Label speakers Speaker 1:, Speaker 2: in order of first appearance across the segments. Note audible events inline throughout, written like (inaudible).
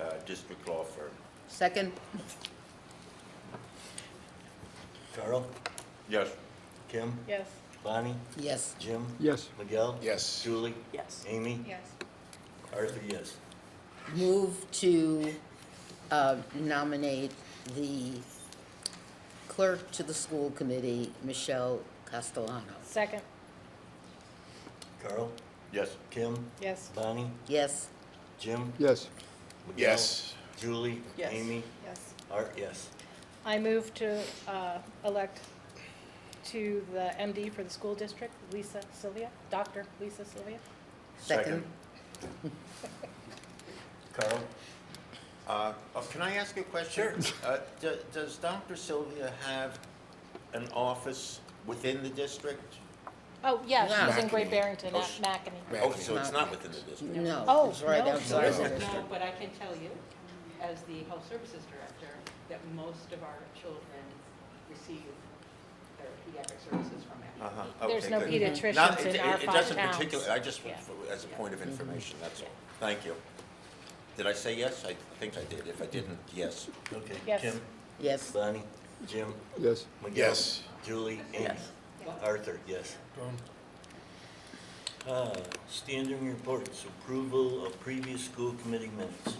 Speaker 1: uh, district law firm.
Speaker 2: Second?
Speaker 3: Carl,
Speaker 1: Yes.
Speaker 3: Kim,
Speaker 4: Yes.
Speaker 3: Bonnie,
Speaker 2: Yes.
Speaker 3: Jim,
Speaker 5: Yes.
Speaker 3: Miguel,
Speaker 6: Yes.
Speaker 3: Julie,
Speaker 4: Yes.
Speaker 3: Amy,
Speaker 4: Yes.
Speaker 3: Arthur, yes.
Speaker 2: Move to uh, nominate the clerk to the school committee, Michelle Castellano.
Speaker 4: Second.
Speaker 3: Carl,
Speaker 1: Yes.
Speaker 3: Kim,
Speaker 4: Yes.
Speaker 3: Bonnie,
Speaker 2: Yes.
Speaker 3: Jim,
Speaker 5: Yes.
Speaker 3: Miguel,
Speaker 6: Yes.
Speaker 3: Julie,
Speaker 4: Yes.
Speaker 3: Amy,
Speaker 4: Yes.
Speaker 3: Art, yes.
Speaker 4: I move to uh, elect to the MD for the school district, Lisa Sylvia, Dr. Lisa Sylvia.
Speaker 2: Second?
Speaker 3: Carl,
Speaker 1: Uh, oh, Can I ask a question? Sure. Does Dr. Sylvia have an office within the district?
Speaker 4: Oh, yeah, she's in
Speaker 6: Mackinac.
Speaker 4: Great Barrington,
Speaker 1: Oh,
Speaker 4: not
Speaker 1: she-
Speaker 4: Mackinac.
Speaker 1: Oh, so it's
Speaker 2: No.
Speaker 1: not within the district?
Speaker 2: No,
Speaker 4: Oh,
Speaker 2: it's right
Speaker 4: no.
Speaker 2: outside of
Speaker 1: No.
Speaker 2: the
Speaker 7: No,
Speaker 2: district.
Speaker 7: but I can tell you, as the health services director, that most of our children receive their pediatric services from Aetna.
Speaker 1: Uh-huh,
Speaker 4: There's
Speaker 1: okay,
Speaker 4: no
Speaker 1: good.
Speaker 4: pediatricians
Speaker 1: Not-
Speaker 4: in
Speaker 1: it-
Speaker 4: our
Speaker 1: it-
Speaker 4: five
Speaker 1: It doesn't
Speaker 4: towns.
Speaker 1: particularly, I just,
Speaker 4: Yeah. Mm-hmm.
Speaker 1: as a point of information, that's all.
Speaker 4: Yeah.
Speaker 1: Thank you. Did I say yes? I think I did. If I didn't, yes.
Speaker 3: okay,
Speaker 4: Yes.
Speaker 3: Kim,
Speaker 2: Yes.
Speaker 3: Bonnie, Jim,
Speaker 5: Yes.
Speaker 3: Miguel,
Speaker 6: Yes.
Speaker 3: Julie, Amy, Arthur, yes. Uh, Standing reports, approval of previous school committee minutes.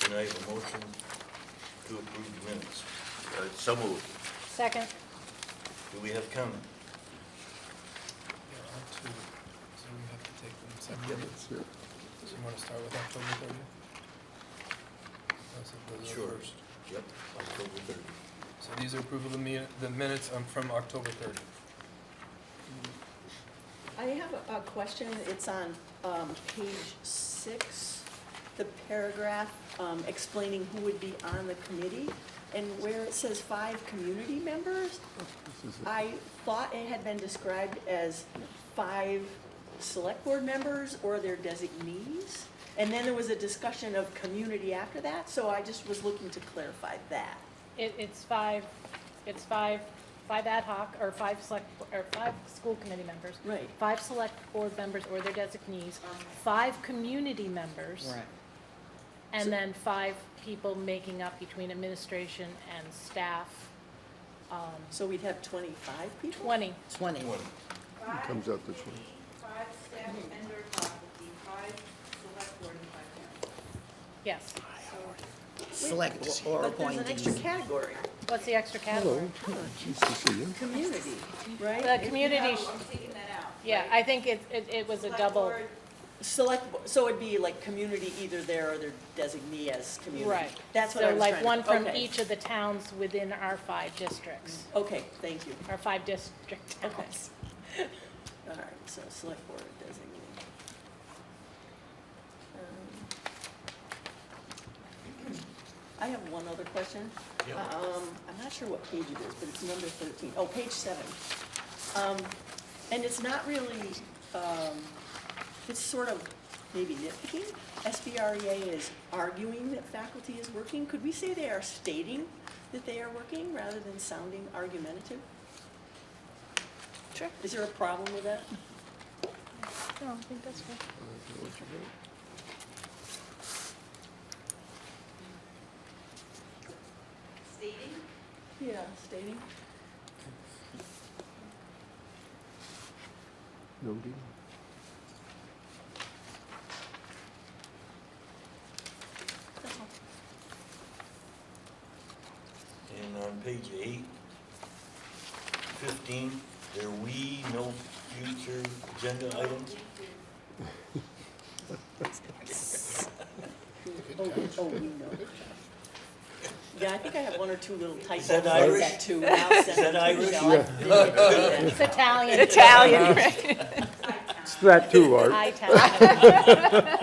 Speaker 3: Can I have a motion to approve the minutes?
Speaker 1: Uh, So moved.
Speaker 4: Second.
Speaker 3: Do we have comment?
Speaker 8: There are two, so we have to take them separately. So you want to start with October thirtieth?
Speaker 3: First. Yep, October thirty.
Speaker 8: So these are approval of the mi- the minutes um, from October thirtieth.
Speaker 9: I have a- a Uh, question. It's on um, page six, the paragraph um, explaining who would be on the committee, and where it says five community members, I thought it had been described as five select board members or their designees, and then there was a discussion of community after that, so I just was looking to clarify that.
Speaker 4: It, it's five, it's five, five ad hoc, or five select, or five school committee members.
Speaker 9: Right.
Speaker 4: Five select board members or their designees, five community members.
Speaker 2: Right.
Speaker 9: So-
Speaker 4: And then five people making up between administration and staff,
Speaker 9: So we'd have twenty-five people?
Speaker 4: twenty.
Speaker 2: 20.
Speaker 5: Comes out this way.
Speaker 7: Five staff and their faculty, five select board and five parents.
Speaker 4: Yes.
Speaker 2: Select or
Speaker 9: But there's an extra
Speaker 2: appointees.
Speaker 9: category,
Speaker 4: What's the extra category?
Speaker 5: Hello. Nice to see you.
Speaker 9: community, right?
Speaker 4: The community,
Speaker 7: No, I'm taking that out.
Speaker 4: yeah, I think it, it, it was a double,
Speaker 7: Select board,
Speaker 9: Select, bo- so it'd be like community either there or their designee as community?
Speaker 4: right.
Speaker 9: That's what I was trying to.
Speaker 4: So like one from
Speaker 9: okay.
Speaker 4: each of the towns within our five districts,
Speaker 9: Okay, thank you.
Speaker 4: our five district
Speaker 9: Okay.
Speaker 4: towns.
Speaker 9: (laughs) All right, so select board designee. Um, (clears throat) I have one other question. Um, I'm not sure what page it is, but it's number thirteen. Oh, page seven. Um, and it's not really, um, it's sort of maybe nitpicking. SBREA E is arguing that faculty is working. Could we say they are stating that they are working rather than sounding argumentative? Sure. Is there a problem with that?
Speaker 4: No, I think that's right.
Speaker 7: Stating,
Speaker 9: Yeah, stating.
Speaker 5: No deal.
Speaker 3: And on page eight, fifteen, there we no future agenda items?
Speaker 9: Oh, oh, we know. Yeah, I think I have one or two little typos.
Speaker 3: that
Speaker 9: I'll get
Speaker 3: Irish?
Speaker 9: to, and I'll
Speaker 3: Is
Speaker 9: send
Speaker 3: that
Speaker 9: it to
Speaker 3: Irish?
Speaker 9: Michelle.
Speaker 4: It's Italian.
Speaker 2: Italian.
Speaker 5: It's that too, Art.
Speaker 4: Italian.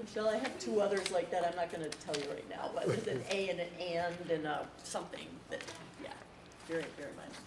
Speaker 9: Michelle, I have two others like that, I'm not gonna tell you uh, right now, but there's an A and an and and a something that, yeah, very, very minor.